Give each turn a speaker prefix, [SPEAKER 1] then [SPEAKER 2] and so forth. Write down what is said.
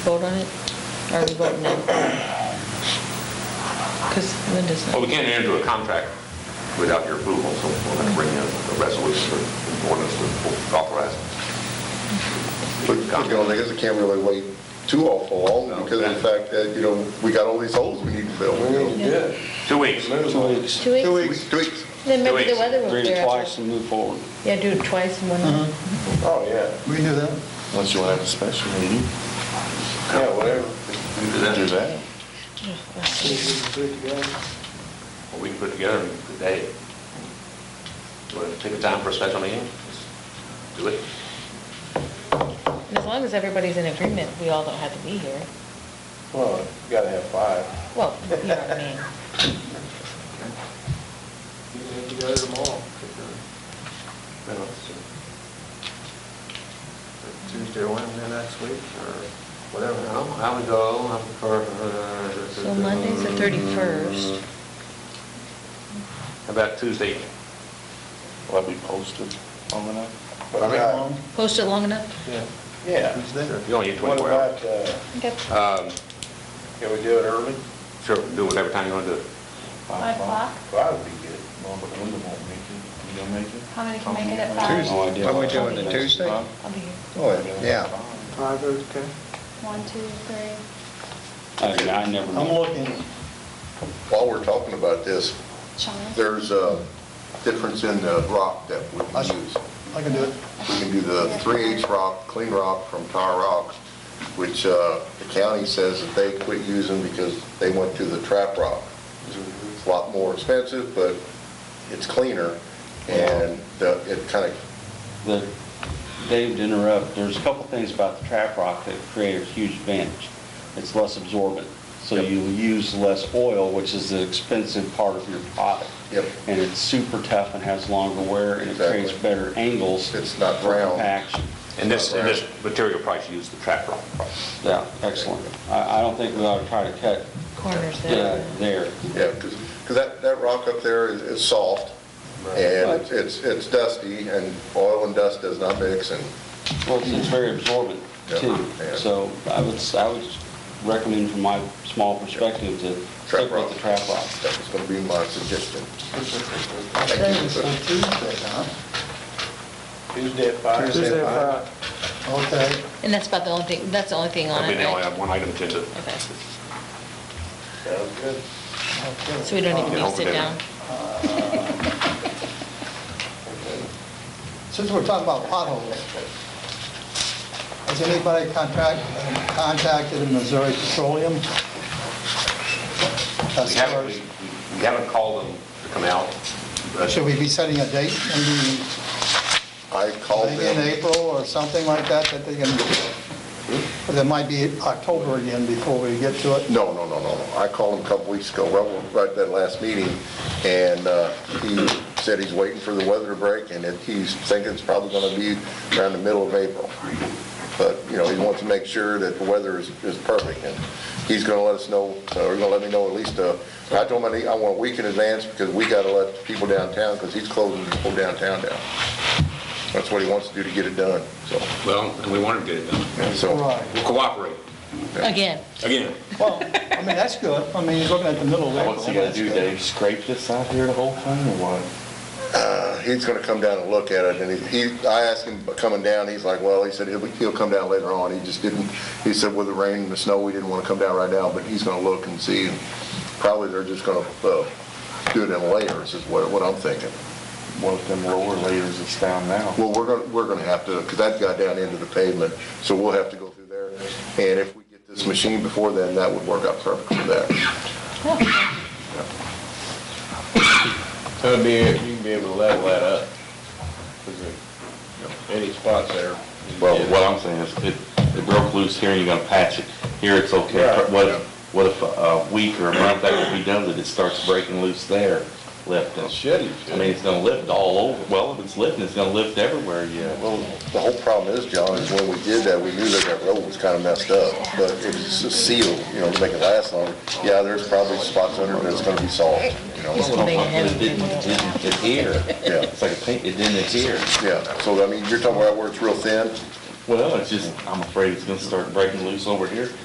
[SPEAKER 1] vote on it? Or are we voting no? Because Linda's
[SPEAKER 2] Well,
[SPEAKER 1] not.
[SPEAKER 2] we can't enter into a contract without your approval, so we're going to bring in a resolution or ordinance to authorize.
[SPEAKER 3] But, you know, I guess I can't really wait too awful long because of the fact that, you know, we got all these holes Oh, we need to fill. you know.
[SPEAKER 4] Yeah.
[SPEAKER 2] Two weeks.
[SPEAKER 4] Two weeks.
[SPEAKER 1] Two
[SPEAKER 3] Two
[SPEAKER 1] weeks?
[SPEAKER 3] weeks, two weeks.
[SPEAKER 1] Then
[SPEAKER 2] Two
[SPEAKER 1] maybe the
[SPEAKER 2] weeks.
[SPEAKER 1] weather will
[SPEAKER 4] Read
[SPEAKER 1] clear
[SPEAKER 4] it
[SPEAKER 1] up. Uh-huh.
[SPEAKER 4] twice and move forward.
[SPEAKER 1] Yeah, do it twice in one night.
[SPEAKER 4] Oh, yeah.
[SPEAKER 5] We can do that.
[SPEAKER 6] Unless you want to have a special meeting,
[SPEAKER 4] Yeah, whatever.
[SPEAKER 2] Do
[SPEAKER 6] do
[SPEAKER 2] that.
[SPEAKER 6] that.
[SPEAKER 2] We can put it together today. Do you want to take the time for a special meeting? Do it.
[SPEAKER 1] And as long as everybody's in agreement, we all don't have to be here.
[SPEAKER 4] Well, you gotta have five.
[SPEAKER 1] Well, you know what I mean.
[SPEAKER 4] You can have together tomorrow.
[SPEAKER 2] Tuesday, Wednesday next week, or whatever. I would go, I prefer... uh,
[SPEAKER 1] So Monday's the 31st.
[SPEAKER 2] How about Tuesday?
[SPEAKER 6] Will that be posted long enough?
[SPEAKER 4] But I'm not-
[SPEAKER 1] Post it long enough?
[SPEAKER 4] Yeah.
[SPEAKER 2] You only need
[SPEAKER 4] What
[SPEAKER 2] 24 hours.
[SPEAKER 4] about, uh,
[SPEAKER 1] Okay.
[SPEAKER 2] Um,
[SPEAKER 4] can we do it early?
[SPEAKER 2] Sure, do whatever time you want to do. it.
[SPEAKER 7] Five o'clock?
[SPEAKER 4] Five would be good.
[SPEAKER 6] No, but Linda won't make it. You gonna make it?
[SPEAKER 7] How many can make it at five?
[SPEAKER 5] Tuesday. Are we doing it Tuesday?
[SPEAKER 7] I'll be here.
[SPEAKER 5] Oh, yeah.
[SPEAKER 8] Five, okay.
[SPEAKER 7] One, two, three.
[SPEAKER 4] I mean, I never
[SPEAKER 5] I'm
[SPEAKER 4] know.
[SPEAKER 5] looking,
[SPEAKER 3] While we're talking about this,
[SPEAKER 7] Sean?
[SPEAKER 3] there's a difference in the rock that we
[SPEAKER 5] I s-
[SPEAKER 3] use.
[SPEAKER 5] I can do it.
[SPEAKER 3] We can do the 3H rock, clean rock from Tar Rock, which uh, the county says that they quit using because they went to the trap rock. It's a lot more expensive, but it's cleaner, and the- it kind of,
[SPEAKER 4] The, Dave, to interrupt, there's a couple things about the trap rock that create a huge advantage. It's less absorbent, so
[SPEAKER 3] Yep.
[SPEAKER 4] you use less oil, which is the expensive part of your product.
[SPEAKER 3] Yep.
[SPEAKER 4] And it's super tough and has longer wear, and it
[SPEAKER 3] Exactly.
[SPEAKER 4] creates better angles.
[SPEAKER 3] It's not round.
[SPEAKER 4] For compaction.
[SPEAKER 2] And this, and this Uh, material price, use the trap rock price.
[SPEAKER 4] Yeah, excellent. I, I don't think we ought to try to cut
[SPEAKER 1] Corners
[SPEAKER 4] uh,
[SPEAKER 1] there.
[SPEAKER 4] there.
[SPEAKER 3] yeah, because that, that rock up there is- is soft, and it's, it's dusty, and oil and dust does not mix, and
[SPEAKER 4] Well, it's- it's very absorbent
[SPEAKER 3] Yeah,
[SPEAKER 4] too.
[SPEAKER 3] yeah.
[SPEAKER 4] So I would, s- I would recommend from my small perspective to
[SPEAKER 3] Trap
[SPEAKER 4] stick with
[SPEAKER 3] rock.
[SPEAKER 4] the trap rock.
[SPEAKER 3] that was going to be my suggestion.
[SPEAKER 5] Okay, so Tuesday, huh?
[SPEAKER 4] Tuesday at
[SPEAKER 5] Tuesday
[SPEAKER 8] Tuesday,
[SPEAKER 5] at
[SPEAKER 8] five.
[SPEAKER 5] Okay.
[SPEAKER 1] And that's about the only thing, that's the only thing on
[SPEAKER 2] I mean,
[SPEAKER 1] it,
[SPEAKER 2] they only
[SPEAKER 1] right?
[SPEAKER 2] have one item to do.
[SPEAKER 1] Okay.
[SPEAKER 4] Sounds good.
[SPEAKER 5] okay.
[SPEAKER 1] So we don't even need to sit
[SPEAKER 2] Okay.
[SPEAKER 1] down.
[SPEAKER 5] Since we're talking about potholes, has anybody contract, contacted Missouri Petroleum?
[SPEAKER 2] We
[SPEAKER 5] As
[SPEAKER 2] haven't,
[SPEAKER 5] far
[SPEAKER 2] we-
[SPEAKER 5] as-
[SPEAKER 2] we- we haven't called them to come out, but
[SPEAKER 5] Should we be setting a date, maybe,
[SPEAKER 3] I called
[SPEAKER 5] maybe in
[SPEAKER 3] them,
[SPEAKER 5] April or something like that, that they can, because it might be October again before we get to it?
[SPEAKER 3] no, no, no, no, no. I called him a couple weeks ago, well, right at that last meeting, and uh, he said he's waiting for the weather to break, and that he's thinking it's probably going to be around the middle of April. But, you know, he wants to make sure that the weather is, is perfect, and he's going to let us know, so he's going to let me know at least, uh, I told him I need- I want a week in advance, because we got to let people downtown, because he's closing people downtown down. That's what he wants to do to get it done, so,
[SPEAKER 2] Well, and we want to get it done.
[SPEAKER 3] and
[SPEAKER 5] All
[SPEAKER 3] so,
[SPEAKER 5] right.
[SPEAKER 2] We'll cooperate,
[SPEAKER 1] Again,
[SPEAKER 2] again.
[SPEAKER 5] Well, I mean, that's good. I mean, you're looking at the middle of April.
[SPEAKER 6] What's he gonna
[SPEAKER 5] that's
[SPEAKER 6] do,
[SPEAKER 5] good.
[SPEAKER 6] Dave? Scrape this out here the whole thing or what?
[SPEAKER 3] uh, he's going to come down and look at it, and he, he- I asked him about coming down, he's like, well, he said, he'll, he'll come down later on, he just didn't, he said with the rain and the snow, he didn't want to come down right now, but he's going to look and see, and probably they're just going to do it in layers, is what, what I'm thinking.
[SPEAKER 6] What if them roller layers that's down now?
[SPEAKER 3] Well, we're going, to we're going to have to, because that got down into the pavement, so we'll have to go through there, and if we get this machine before then, that would work out perfect for that.
[SPEAKER 4] So it'd be, you can be able to level that up. Any spots there.
[SPEAKER 6] Well, what I'm saying is, it, it broke loose here, and you're gonna patch it. Here, it's okay.
[SPEAKER 4] Right.
[SPEAKER 6] What if, what if a week or a month after we done it, it starts breaking loose there, lifting?
[SPEAKER 4] should, it
[SPEAKER 6] I mean, it's gonna lift all over. Well, if it's lifting, it's gonna lift everywhere, yeah.
[SPEAKER 3] Well, the whole problem is, John, is when we did that, we knew that that road was kind of messed up, but it was just sealed, you know, to make it last longer. Yeah, there's probably spots under it that's gonna be solved, you know,
[SPEAKER 1] Just make it
[SPEAKER 6] But it
[SPEAKER 1] happen.
[SPEAKER 6] didn't, didn't adhere.
[SPEAKER 3] yeah,
[SPEAKER 6] It's like a paint, it didn't adhere.
[SPEAKER 3] yeah. So, I mean, you're talking about where it's real thin,
[SPEAKER 6] Well, it's just, I'm afraid it's gonna start breaking loose over here.